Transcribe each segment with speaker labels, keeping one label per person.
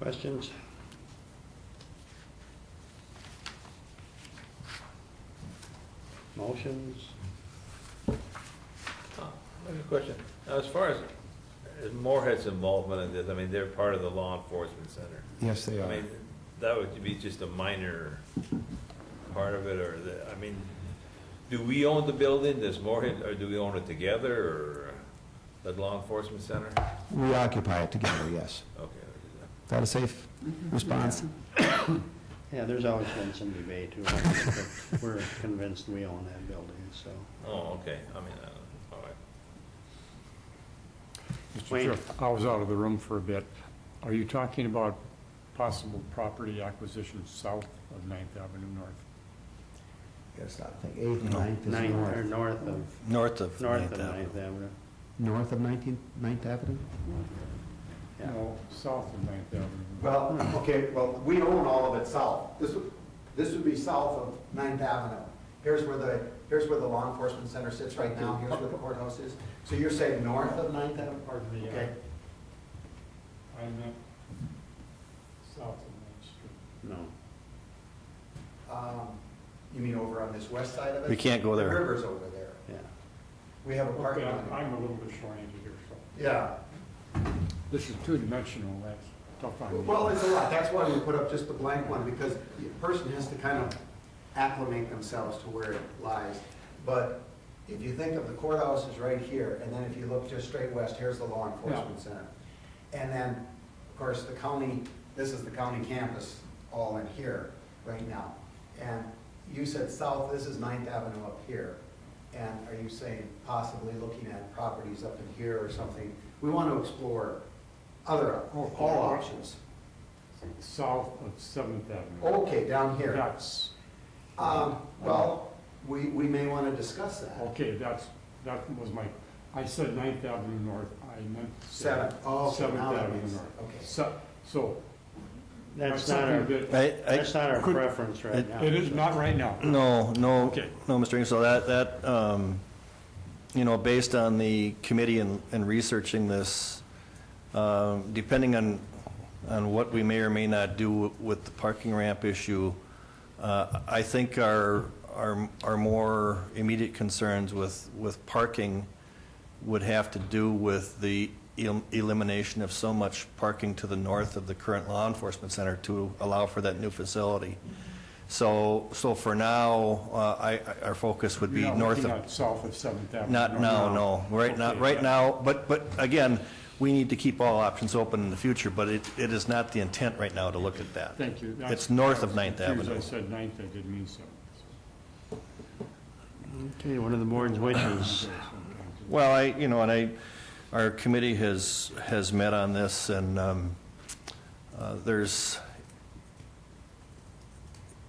Speaker 1: Questions? Motions?
Speaker 2: Oh, I have a question. Now, as far as, as Moorhead's involvement in this, I mean, they're part of the law enforcement center.
Speaker 3: Yes, they
Speaker 2: I
Speaker 3: are.
Speaker 2: mean, that would be just a minor part of it, or the, I mean, do we own the building, does Moorhead, or do we own it together, or the law enforcement center?
Speaker 3: We occupy it together, yes.
Speaker 2: Okay.
Speaker 3: Is that a safe
Speaker 4: Mm-hmm.
Speaker 3: response?
Speaker 1: Yeah, there's always been some debate too. on it, but We're convinced we own that building, so.
Speaker 2: Oh, okay, I mean, uh, all right.
Speaker 4: Mr.
Speaker 1: Wayne.
Speaker 4: Chair, I was out of the room for a bit. Are you talking about possible property acquisition south of Ninth Avenue North?
Speaker 3: Gotta stop thinking. Eighth and
Speaker 5: No.
Speaker 3: ninth is
Speaker 1: Ninth, or
Speaker 3: north.
Speaker 1: north of,
Speaker 5: North of
Speaker 1: north
Speaker 5: Ninth
Speaker 1: of
Speaker 5: Avenue.
Speaker 1: Ninth Avenue.
Speaker 3: North of Nineteenth, Ninth Avenue?
Speaker 1: Yeah.
Speaker 4: No, south of Ninth Avenue.
Speaker 6: Well, okay, well, we own all of it south. This, would- this would be south of Ninth Avenue. Here's where the, here's where the law enforcement center sits right now, here's where the courthouse is. So you're saying north of Ninth Avenue,
Speaker 4: Pardon me,
Speaker 6: okay?
Speaker 4: I meant south of Ninth Street.
Speaker 1: No.
Speaker 6: Um, You mean over on this west side of it?
Speaker 5: We can't go
Speaker 6: The
Speaker 5: there.
Speaker 6: river's over there.
Speaker 1: Yeah.
Speaker 6: We have a
Speaker 4: Okay,
Speaker 6: parking
Speaker 4: I'm
Speaker 6: lot.
Speaker 4: I'm a little bit short-handed here, so.
Speaker 6: Yeah,
Speaker 4: This is two-dimensional, that's tough on me.
Speaker 6: well, it's a lot, that's why we put up just the blank one, because the person has to kind of acclimate themselves to where it lies. But if you think of the courthouse is right here, and then if you look just straight west, here's the law enforcement center. And then, of course, the county, this is the county campus all in here right now. And you said south, this is Ninth Avenue up here. And are you saying possibly looking at properties up in here or something? We want to explore other, all options.
Speaker 4: South of Seventh Avenue.
Speaker 6: Okay, down here.
Speaker 4: That's,
Speaker 6: Um, well, we, we may want to discuss that.
Speaker 4: okay, that's, that was my, I said Ninth Avenue North, I meant.
Speaker 6: Seven. Oh, okay,
Speaker 4: Seventh
Speaker 6: now that
Speaker 4: Avenue
Speaker 6: makes-
Speaker 4: North.
Speaker 6: okay.
Speaker 4: So, so
Speaker 1: That's not
Speaker 4: something
Speaker 1: our,
Speaker 4: that-
Speaker 5: I, I,
Speaker 1: that's not our
Speaker 4: could-
Speaker 1: preference right
Speaker 5: it-
Speaker 1: now.
Speaker 4: It is
Speaker 1: so.
Speaker 4: not right now.
Speaker 5: no, no,
Speaker 4: Okay.
Speaker 5: no, Mr. Ingersoll, that, that, um, you know, based on the committee and, and researching this, um, depending on, on what we may or may not do with the parking ramp issue, uh, I think our, our, our more immediate concerns with, with parking would have to do with the el- elimination of so much parking to the north of the current law enforcement center to allow for that new facility. So, so for now, uh, I, I- our focus would be
Speaker 4: You're not
Speaker 5: north
Speaker 4: looking
Speaker 5: of,
Speaker 4: at South of Seventh Avenue.
Speaker 5: not now, no. Right now,
Speaker 4: Okay,
Speaker 5: right
Speaker 4: yeah.
Speaker 5: now, but, but again, we need to keep all options open in the future, but it, it is not the intent right now to look at that.
Speaker 4: Thank you. That's-
Speaker 5: It's north of
Speaker 4: I was
Speaker 5: Ninth
Speaker 4: confused.
Speaker 5: Avenue.
Speaker 4: I said Ninth, I didn't mean Seventh.
Speaker 1: Okay, one of the board's wishes.
Speaker 5: Well, I, you know, and I, our committee has, has met on this, and um, uh, there's,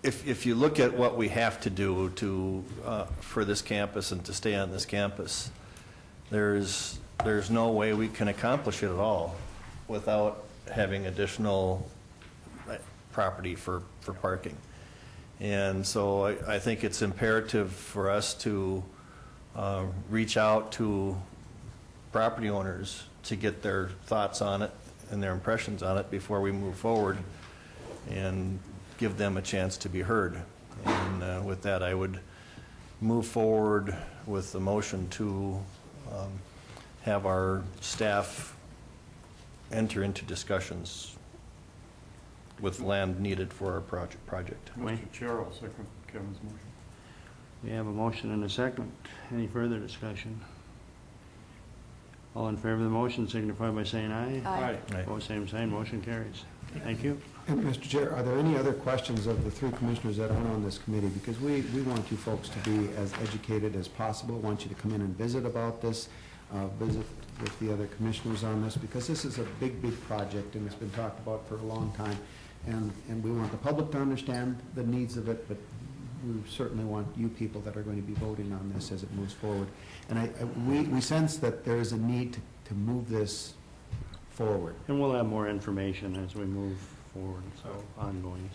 Speaker 5: if, if you look at what we have to do to, uh, for this campus and to stay on this campus, there's, there's no way we can accomplish it at all without having additional uh, property for, for parking. And so I, I think it's imperative for us to uh, reach out to property owners to get their thoughts on it and their impressions on it before we move forward and give them a chance to be heard. And uh, with that, I would move forward with the motion to um, have our staff enter into discussions with land needed for our project. project.
Speaker 1: Wayne.
Speaker 4: Mr. Chair, I'll second Kevin's motion.
Speaker 1: We have a motion and a second. Any further discussion? All in favor of the motion signify by saying aye.
Speaker 4: Aye.
Speaker 5: Right.
Speaker 1: Opposed, same sign, motion carries. Thank you.
Speaker 3: And Mr. Chair, are there any other questions of the three commissioners that aren't on this committee? Because we, we want you folks to be as educated as possible, want you to come in and visit about this, uh, visit with the other commissioners on this, because this is a big, big project, and it's been talked about for a long time. And, and we want the public to understand the needs of it, but we certainly want you people that are going to be voting on this as it moves forward. And I, I- we, we sense that there is a need to- to move this forward.
Speaker 1: And we'll have more information as we move forward, so ongoing,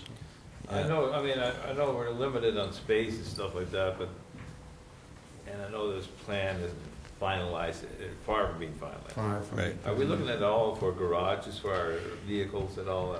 Speaker 1: so.
Speaker 2: I know, I mean, I, I know we're limited on space and stuff like that, but, and I know this plan isn't finalized, eh, far from being finalized.
Speaker 3: Far from-
Speaker 5: Right.
Speaker 2: Are we looking at all for garages for our vehicles and all that?